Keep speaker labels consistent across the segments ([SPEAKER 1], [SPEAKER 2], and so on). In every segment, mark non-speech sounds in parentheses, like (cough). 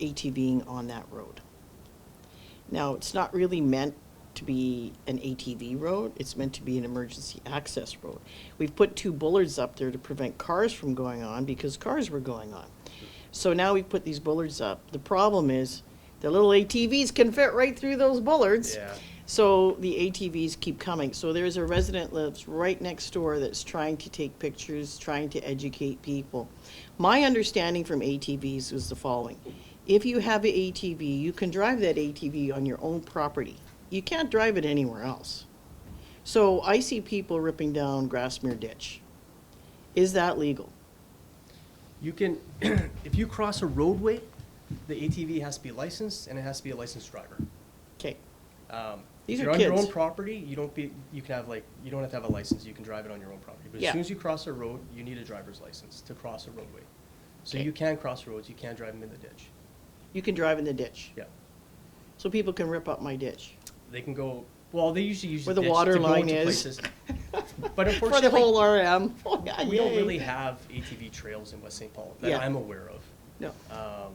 [SPEAKER 1] ATVing on that road. Now, it's not really meant to be an ATV road, it's meant to be an emergency access road. We've put two bullards up there to prevent cars from going on because cars were going on. So now we put these bullards up. The problem is, the little ATVs can fit right through those bullards.
[SPEAKER 2] Yeah.
[SPEAKER 1] So the ATVs keep coming. So there's a resident lives right next door that's trying to take pictures, trying to educate people. My understanding from ATVs was the following. If you have an ATV, you can drive that ATV on your own property. You can't drive it anywhere else. So I see people ripping down Grassmere Ditch. Is that legal?
[SPEAKER 2] You can, (clears throat) if you cross a roadway, the ATV has to be licensed and it has to be a licensed driver.
[SPEAKER 1] Okay,
[SPEAKER 2] Um,
[SPEAKER 1] These
[SPEAKER 2] if
[SPEAKER 1] are
[SPEAKER 2] you're on your own
[SPEAKER 1] kids.
[SPEAKER 2] property, you don't be, you can have like, you don't have to have a license, you can drive it on your own property. But
[SPEAKER 1] Yeah.
[SPEAKER 2] as soon as you cross a road, you need a driver's license to cross a roadway. So
[SPEAKER 1] Okay.
[SPEAKER 2] you can cross roads, you can't drive them in the ditch.
[SPEAKER 1] you can drive in the ditch.
[SPEAKER 2] Yeah.
[SPEAKER 1] So people can rip up my ditch.
[SPEAKER 2] They can go, well, they usually use
[SPEAKER 1] Where
[SPEAKER 2] the
[SPEAKER 1] the
[SPEAKER 2] ditch
[SPEAKER 1] water
[SPEAKER 2] to go
[SPEAKER 1] line
[SPEAKER 2] into
[SPEAKER 1] is. (laughs)
[SPEAKER 2] places. But
[SPEAKER 1] For the whole
[SPEAKER 2] unfortunately,
[SPEAKER 1] RM. (laughs) Oh, yeah,
[SPEAKER 2] we don't
[SPEAKER 1] yay.
[SPEAKER 2] really have ATV trails in West St. Paul
[SPEAKER 1] Yeah.
[SPEAKER 2] that I'm aware of.
[SPEAKER 1] No.
[SPEAKER 2] Um,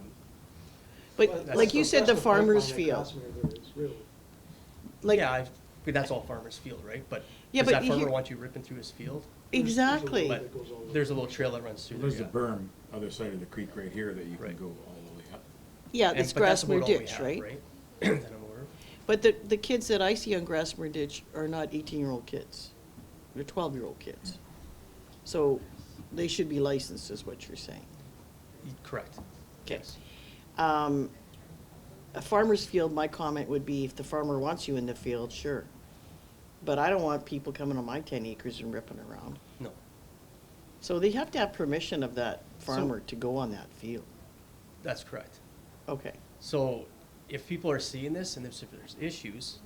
[SPEAKER 1] But
[SPEAKER 2] That's-
[SPEAKER 1] like you said, the
[SPEAKER 3] That's point
[SPEAKER 1] farmer's
[SPEAKER 3] on that
[SPEAKER 1] field,
[SPEAKER 3] Grassmere there is, really. oh
[SPEAKER 1] like,
[SPEAKER 2] yeah, I've, but that's all farmer's field, right? But
[SPEAKER 1] Yeah,
[SPEAKER 2] does
[SPEAKER 1] but
[SPEAKER 2] that
[SPEAKER 1] you-
[SPEAKER 2] farmer want you ripping through his field?
[SPEAKER 3] There's- there's a little
[SPEAKER 1] Exactly.
[SPEAKER 3] bit
[SPEAKER 2] But
[SPEAKER 3] that goes all the way.
[SPEAKER 2] there's a little trail that runs through there.
[SPEAKER 4] There's a
[SPEAKER 2] yeah.
[SPEAKER 4] berm, uh, other side of the creek right here that you can
[SPEAKER 2] Right.
[SPEAKER 4] go all the way up.
[SPEAKER 1] yeah,
[SPEAKER 2] And-
[SPEAKER 1] it's
[SPEAKER 2] but that's about
[SPEAKER 1] Grassmere
[SPEAKER 2] all we
[SPEAKER 1] Ditch,
[SPEAKER 2] have,
[SPEAKER 1] right? (clears throat)
[SPEAKER 2] That I'm aware of.
[SPEAKER 1] But the, the kids that I see on Grassmere Ditch are not eighteen-year-old kids. They're twelve-year-old kids. So they should be licensed, is what you're saying.
[SPEAKER 2] Y- Correct.
[SPEAKER 1] Okay.
[SPEAKER 2] Yes.
[SPEAKER 1] Um, a farmer's field, my comment would be if the farmer wants you in the field, sure. But I don't want people coming on my ten acres and ripping around.
[SPEAKER 2] No.
[SPEAKER 1] So they have to have permission of that
[SPEAKER 2] So-
[SPEAKER 1] farmer to go on that field.
[SPEAKER 2] That's correct.
[SPEAKER 1] Okay,
[SPEAKER 2] So if people are seeing this and if there's issues,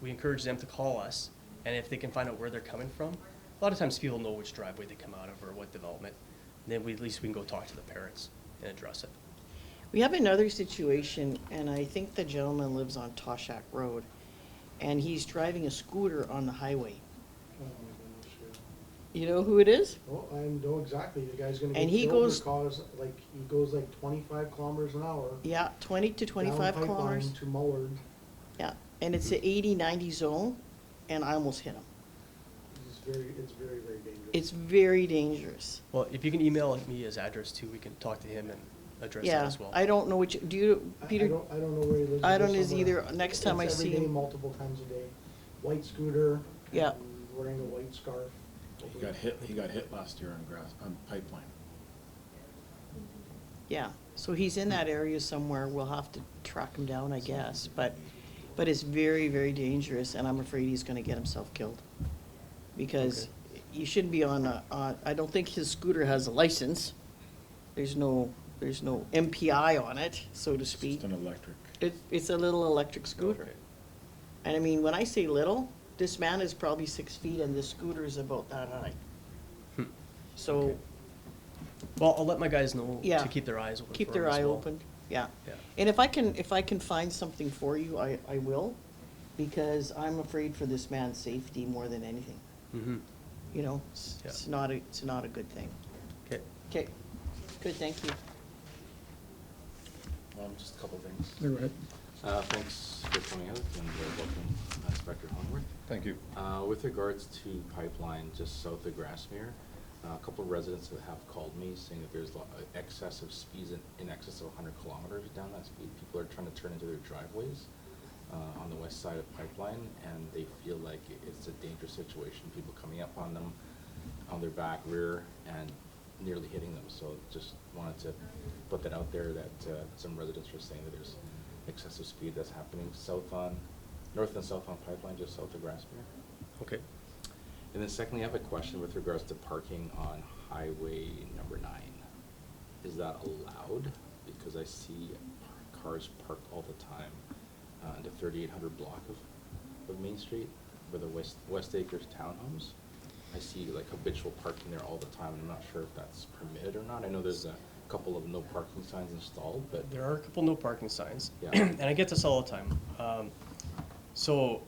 [SPEAKER 2] we encourage them to call us. And if they can find out where they're coming from, a lot of times people know which driveway they come out of or what development. Then we, at least we can go talk to the parents and address it.
[SPEAKER 1] we have another situation, and I think the gentleman lives on Toshak Road, and he's driving a scooter on the highway.
[SPEAKER 3] Oh, my goodness, yeah.
[SPEAKER 1] You know who it is?
[SPEAKER 3] Oh, I know exactly, the guy's gonna
[SPEAKER 1] And
[SPEAKER 3] get
[SPEAKER 1] he
[SPEAKER 3] killed
[SPEAKER 1] goes-
[SPEAKER 3] because, like, he goes like twenty-five kilometers an hour.
[SPEAKER 1] Yeah, twenty to twenty-five
[SPEAKER 3] down pipeline Mm-hmm.
[SPEAKER 1] kilometers.
[SPEAKER 3] To Mullard,
[SPEAKER 1] Yeah, and it's a 80-90 zone, and I almost hit him.
[SPEAKER 3] it's very, it's very, very dangerous.
[SPEAKER 1] It's very dangerous.
[SPEAKER 2] Well, if you can email me his address too, we can talk to him and address that
[SPEAKER 1] Yeah,
[SPEAKER 2] as well.
[SPEAKER 1] I don't know which, do you,
[SPEAKER 3] I- I
[SPEAKER 1] Peter?
[SPEAKER 3] don't, I don't know where he lives.
[SPEAKER 1] I
[SPEAKER 3] He lives
[SPEAKER 1] don't is
[SPEAKER 3] somewhere.
[SPEAKER 1] either. Next time I
[SPEAKER 3] It's
[SPEAKER 1] see
[SPEAKER 3] Every day,
[SPEAKER 1] him-
[SPEAKER 3] multiple times a day, white scooter.
[SPEAKER 1] Yeah.
[SPEAKER 3] and Wearing a white scarf.
[SPEAKER 4] He got hit, he got hit last year on grass, on pipeline.
[SPEAKER 1] Yeah, so he's in that area somewhere, we'll have to track him down, I guess, but, but it's very, very dangerous, and I'm afraid he's gonna get himself killed. Because you shouldn't be on a, on, I don't think his scooter has a license, there's no, there's no MPI on it, so to
[SPEAKER 4] It's
[SPEAKER 1] speak.
[SPEAKER 4] just an electric.
[SPEAKER 1] It, it's a little electric scooter.
[SPEAKER 2] Okay.
[SPEAKER 1] And I mean, when I say little, this man is probably six feet and this scooter is about that high.
[SPEAKER 2] Hmm.
[SPEAKER 1] So
[SPEAKER 2] Well, I'll let my guys know
[SPEAKER 1] Yeah.
[SPEAKER 2] to keep their eyes open.
[SPEAKER 1] keep
[SPEAKER 2] for
[SPEAKER 1] their
[SPEAKER 2] him as
[SPEAKER 1] eye
[SPEAKER 2] well.
[SPEAKER 1] open, yeah.
[SPEAKER 2] Yeah.
[SPEAKER 1] And if I can, if I can find something for you, I, I will, because I'm afraid for this man's safety more than anything.
[SPEAKER 2] Mm-hmm.
[SPEAKER 1] You know, it's,
[SPEAKER 2] Yeah.
[SPEAKER 1] it's not a, it's not a good thing.
[SPEAKER 2] Okay.
[SPEAKER 1] Okay, good, thank you.
[SPEAKER 5] Um, just a couple of things. Uh, thanks for coming out and uh, welcome uh, Inspector Homeworth.
[SPEAKER 4] Thank you.
[SPEAKER 5] Uh, with regards to pipeline just south of Grassmere, uh, a couple of residents that have called me saying that there's lo- uh, excessive speeds in, in excess of hundred kilometers down that speed. People are trying to turn into their driveways, uh, on the west side of pipeline and they feel like i- it's a dangerous situation. People coming up on them, on their back rear and nearly hitting them. So just wanted to put that out there that, uh, some residents were saying that there's excessive speed that's happening south on, north and south on pipeline, just south of Grassmere.
[SPEAKER 2] Okay.
[SPEAKER 5] And then secondly, I have a question with regards to parking on highway number nine. Is that allowed? Because I see cars parked all the time uh, in the thirty-eight hundred block of, of Main Street, where the West, West Acres townhomes. I see like habitual parking there all the time, and I'm not sure if that's permitted or not. I know there's a couple of no parking signs installed, but
[SPEAKER 2] There are a couple no parking signs.
[SPEAKER 5] Yeah.
[SPEAKER 2] (clears throat) And I get this all the time. Um, so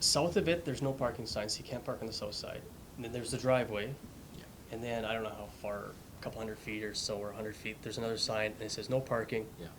[SPEAKER 2] south of it, there's no parking signs. so You can't park on the south side. And then there's the driveway.
[SPEAKER 5] Yeah.
[SPEAKER 2] And then I don't know how far, a couple hundred feet or so, or a hundred feet, there's another sign and it says no parking.
[SPEAKER 5] Yeah.